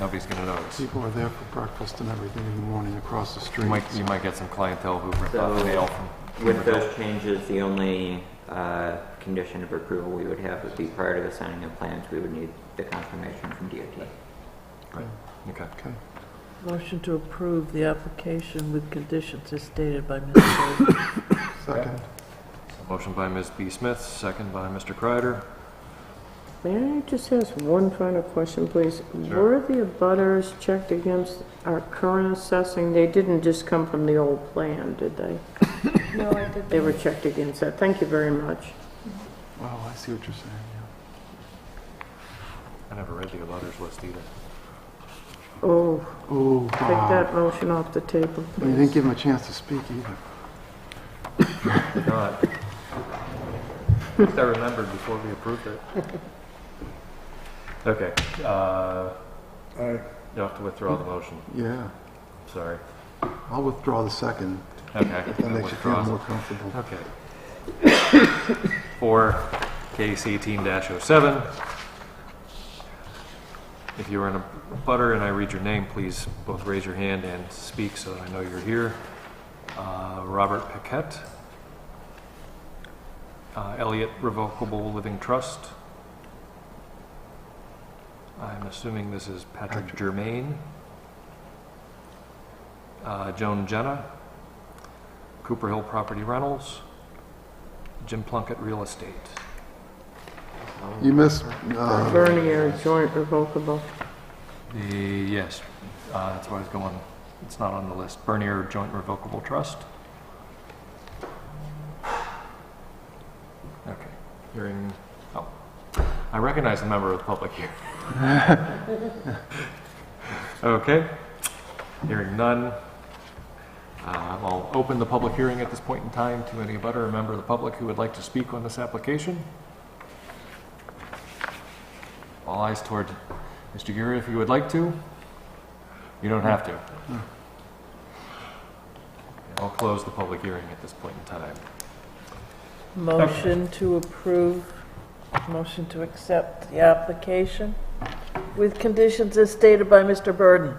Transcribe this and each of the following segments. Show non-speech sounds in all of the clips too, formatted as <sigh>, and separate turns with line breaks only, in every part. nobody's gonna notice.
People are there for breakfast and everything in the morning across the
You
street.
might, you might get some clientele who rip off
So,
the mail from.
With those changes, the only uh, condition of approval we would have would be prior to the signing of plans, we would need the confirmation from DOT.
Okay.
Okay.
Motion to approve the application with conditions as stated by Mr. Davis.
Second.
Motion by Ms. B. Smith, second by Mr. Kreider.
<coughs> May I just ask one final question, please?
Sure.
Were the abutters checked against our current assessing? They didn't just come from the old plan,
<coughs>
did they?
No, I didn't.
They were checked against that. Thank you very much.
Wow, I see what you're saying.
I never read the abutters list either.
Oh,
yeah. Ooh,
take
wow.
that motion off the table,
You didn't
please.
give him a chance to speak either.
Did not. At least I remembered before we approved it. Okay, uh, you'll have to withdraw the motion,
Yeah,
sorry.
I'll withdraw the second.
Okay.
That makes you feel
withdraws.
more comfortable.
Okay. For case eighteen oh 7 If you are in a butter and I read your name, please both raise your hand and speak so that I know you're here. Uh, Robert Paquette. Uh, Elliott Revocable Living Trust. I'm assuming this is Patrick
Patrick.
Germain. Uh, Joan Jenna. Cooper Hill Property Rentals. Jim Plunkett Real Estate.
You missed, uh,
Vernier joint revocable.
The, yes, uh, that's where I was going. It's not on the list. Bernier Joint Revocable Trust. Okay, hearing, oh, I recognize the member of the public here. Okay, hearing none. Uh, I'll open the public hearing at this point in time to any abutter or member of the public who would like to speak on this application. All eyes toward Mr. Guri, if you would like to. You don't have to. I'll close the public hearing at this point in time.
Motion to approve, motion to accept the application with conditions as stated by Mr. Burden.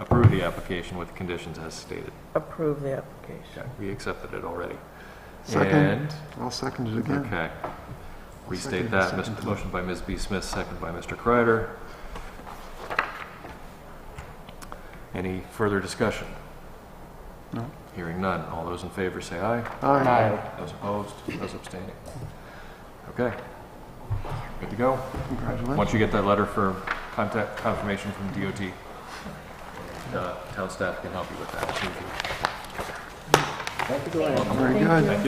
Approve the application with conditions as stated.
Approve the application.
Okay, We accepted it already.
second,
And,
I'll second it again.
okay. Restate
Second,
that.
second.
Mis- Motion by Ms. B. Smith, second by Mr. Kreider. Any further discussion?
No.
Hearing none. All those in favor say aye.
Aye.
Those opposed, those abstaining. Okay. Good to go. Once
Congratulations.
you get that letter for contact confirmation from DOT, uh, town staff can help you with that. Thank you.
Very good.
Thank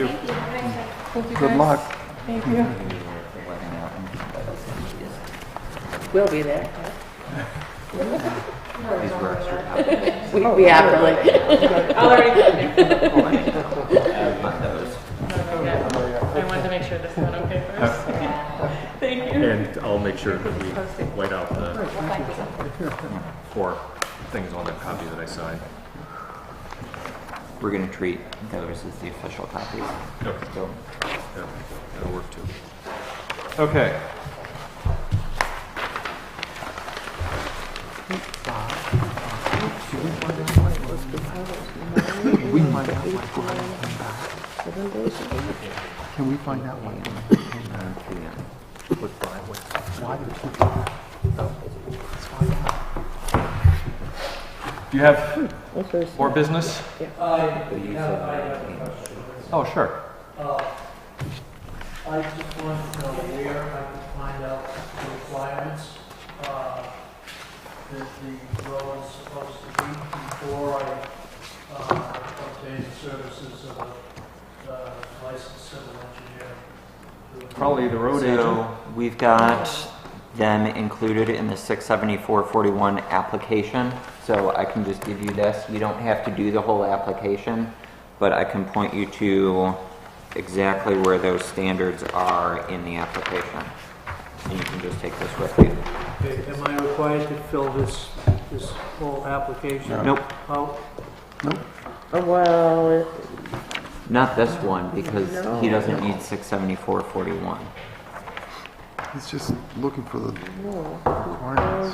you.
Good luck.
Thank you.
We'll be there.
These were extra
We will be happily. <laughs>
I'll already,
Oh, copies.
I wanted to make sure this went okay first. Thank you.
And I'll make sure that we white out the four things on that copy that I signed.
We're gonna treat those as the official copies.
Okay.
So,
Yeah, That'll work too. Okay.
Can we find out what Glenn came back? Can we find out what Glenn came back? Why did he come back? Let's find out.
Do you have more business?
but you said-
Oh, sure.
Uh, I just want to know where I can find out the requirements uh, that the road is supposed to meet before I uh, obtain the services of a uh, licensed civil engineer.
Probably the road agent.
So we've got them included in the six seventy-four forty-one application, so I can just give you this. You don't have to do the whole application, but I can point you to exactly where those standards are in the application. And you can just take this with you.
Okay, Am I required to fill this, this whole application
Nope,
out?
Well, it-
not this one, because he doesn't need six seventy-four forty-one.
He's just looking for the requirements.